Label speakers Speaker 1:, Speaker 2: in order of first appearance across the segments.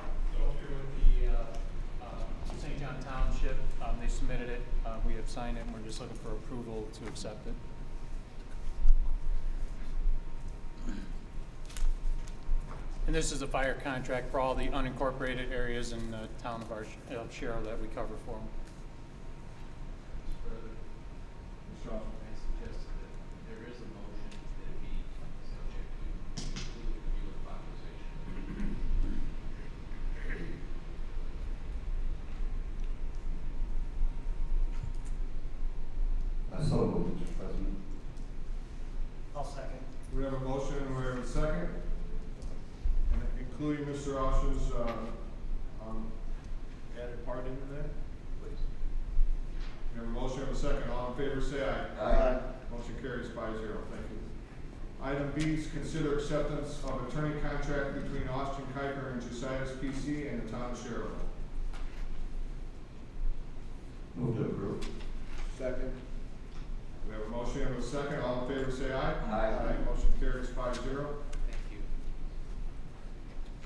Speaker 1: uh, Um, submitted it, uh, we have signed it, and we're just looking for approval to accept it. And this is a fire contract for all the unincorporated areas in the town of our, of Sherrill that we cover for them.
Speaker 2: Further, Mr. Hoffman has suggested that there is a motion that it be subject to complete review of authorization.
Speaker 3: I so moved, Mr. President.
Speaker 4: I'll second.
Speaker 5: We have a motion and we have a second, and including Mr. Osh's, uh, um, added part into that.
Speaker 2: Please.
Speaker 5: We have a motion and a second, all in favor say aye.
Speaker 3: Aye.
Speaker 5: Motion carries five zero, thank you. Item B is consider acceptance of attorney contract between Austin Kuiper and Justice PC and the town of Sherrill.
Speaker 3: Move to approve.
Speaker 5: Second. We have a motion and a second, all in favor say aye.
Speaker 3: Aye.
Speaker 5: Motion carries five zero.
Speaker 2: Thank you.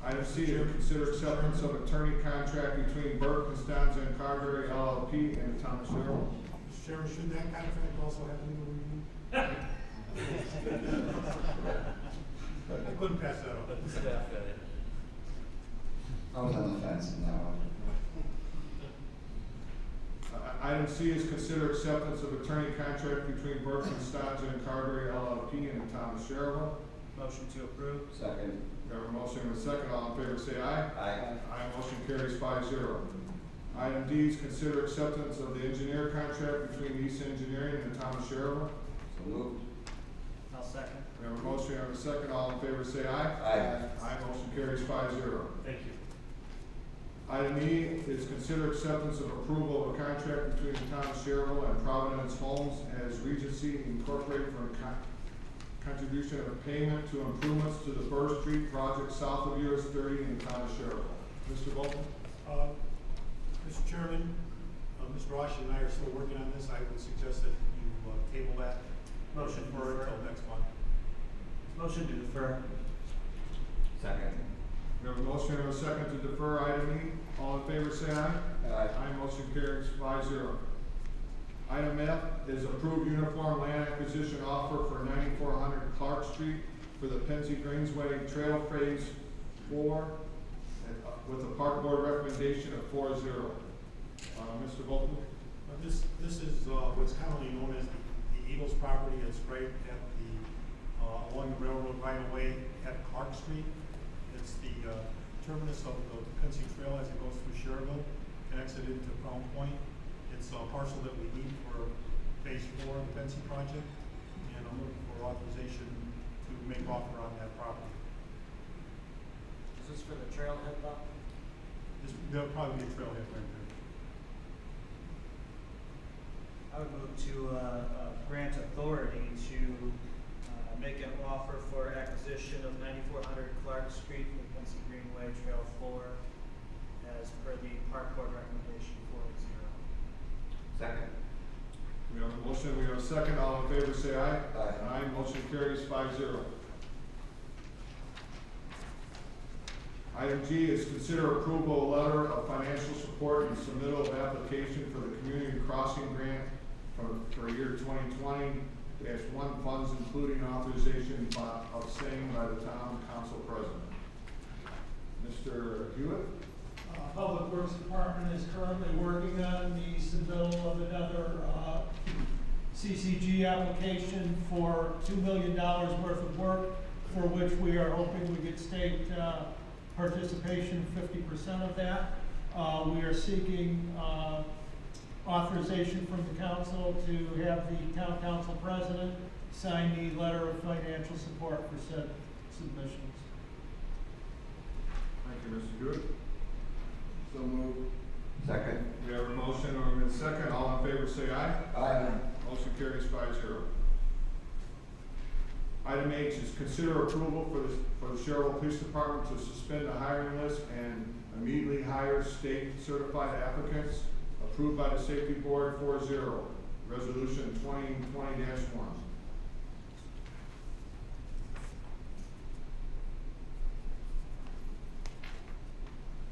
Speaker 5: Item C is consider acceptance of attorney contract between Burke, Costanza, and Carberry LLP and the town of Sherrill.
Speaker 4: Mr. Chairman, should that contract also have legal review? I couldn't pass that up.
Speaker 3: I was on the fence in that one.
Speaker 5: I- Uh, Item C is consider acceptance of attorney contract between Burke, Costanza, and Carberry LLP and the town of Sherrill.
Speaker 4: Motion to approve.
Speaker 3: Second.
Speaker 5: We have a motion and a second, all in favor say aye.
Speaker 3: Aye.
Speaker 5: Aye, motion carries five zero. Item D is consider acceptance of the engineer contract between East Engineering and the town of Sherrill.
Speaker 3: So moved.
Speaker 4: I'll second.
Speaker 5: We have a motion, we have a second, all in favor say aye.
Speaker 3: Aye.
Speaker 5: Aye, motion carries five zero.
Speaker 4: Thank you.
Speaker 5: Item E is consider acceptance of approval of a contract between the town of Sherrill and Providence Homes as Regency Incorporated for a con- contribution of payment to improvements to the First Street project south of US thirty in the town of Sherrill. Mr. Bolton?
Speaker 6: Uh, Mr. Chairman, uh, Mr. Rosh and I are still working on this. I would suggest that you uh, table that.
Speaker 4: Motion to
Speaker 6: for
Speaker 4: defer.
Speaker 6: Until next month.
Speaker 4: Motion to defer.
Speaker 3: Second.
Speaker 5: We have a motion and a second to defer item E. All in favor, say aye.
Speaker 3: Aye.
Speaker 5: Aye, motion carries five zero. Item F is approved uniform land acquisition offer for ninety-four hundred Clark Street for the Penzi Greensway Trail Phase Four and, uh, with a park board recommendation of four zero. Uh, Mr. Bolton?
Speaker 6: Uh, This, this is uh, what's commonly known as the the Eagles property. It's right at the, uh, along the railroad right of way at Clark Street. It's the uh, terminus of the Quincy Trail as it goes through Sherrville, connects it into Crown Point. It's a parcel that we need for phase four of the Quincy project, and I'm looking for authorization to make offer on that property.
Speaker 4: Is this for the trailhead lot?
Speaker 6: This, there'll probably be a trailhead right there.
Speaker 7: I would move to uh, uh, grant authority to uh, make an offer for acquisition of 9400 Clark Street for the Quincy Greenway Trail Floor as per the park board recommendation 4-0.
Speaker 3: Second.
Speaker 5: We have a motion, we have a second. All in favor, say aye.
Speaker 3: Aye.
Speaker 5: Aye, motion carries five zero. Item G is consider approval of letter of financial support and submittal of application for the community crossing grant from, for year twenty twenty dash one funds including authorization by- of same by the town council president. Mr. Hewitt?
Speaker 8: Uh, Public Works Department is currently working on the submittal of another uh, CCG application for two million dollars worth of work, for which we are hoping we get state uh, participation, fifty percent of that. Uh, We are seeking uh, authorization from the council to have the town council president sign the letter of financial support for said submissions.
Speaker 5: Thank you, Mr. Hewitt.
Speaker 3: So moved. Second.
Speaker 5: We have a motion, we have a second. All in favor, say aye.
Speaker 3: Aye.
Speaker 5: Motion carries five zero. Item H is consider approval for the, for the Sherrill Police Department to suspend the hiring list and immediately hire state certified applicants approved by the Safety Board four zero, resolution twenty twenty one.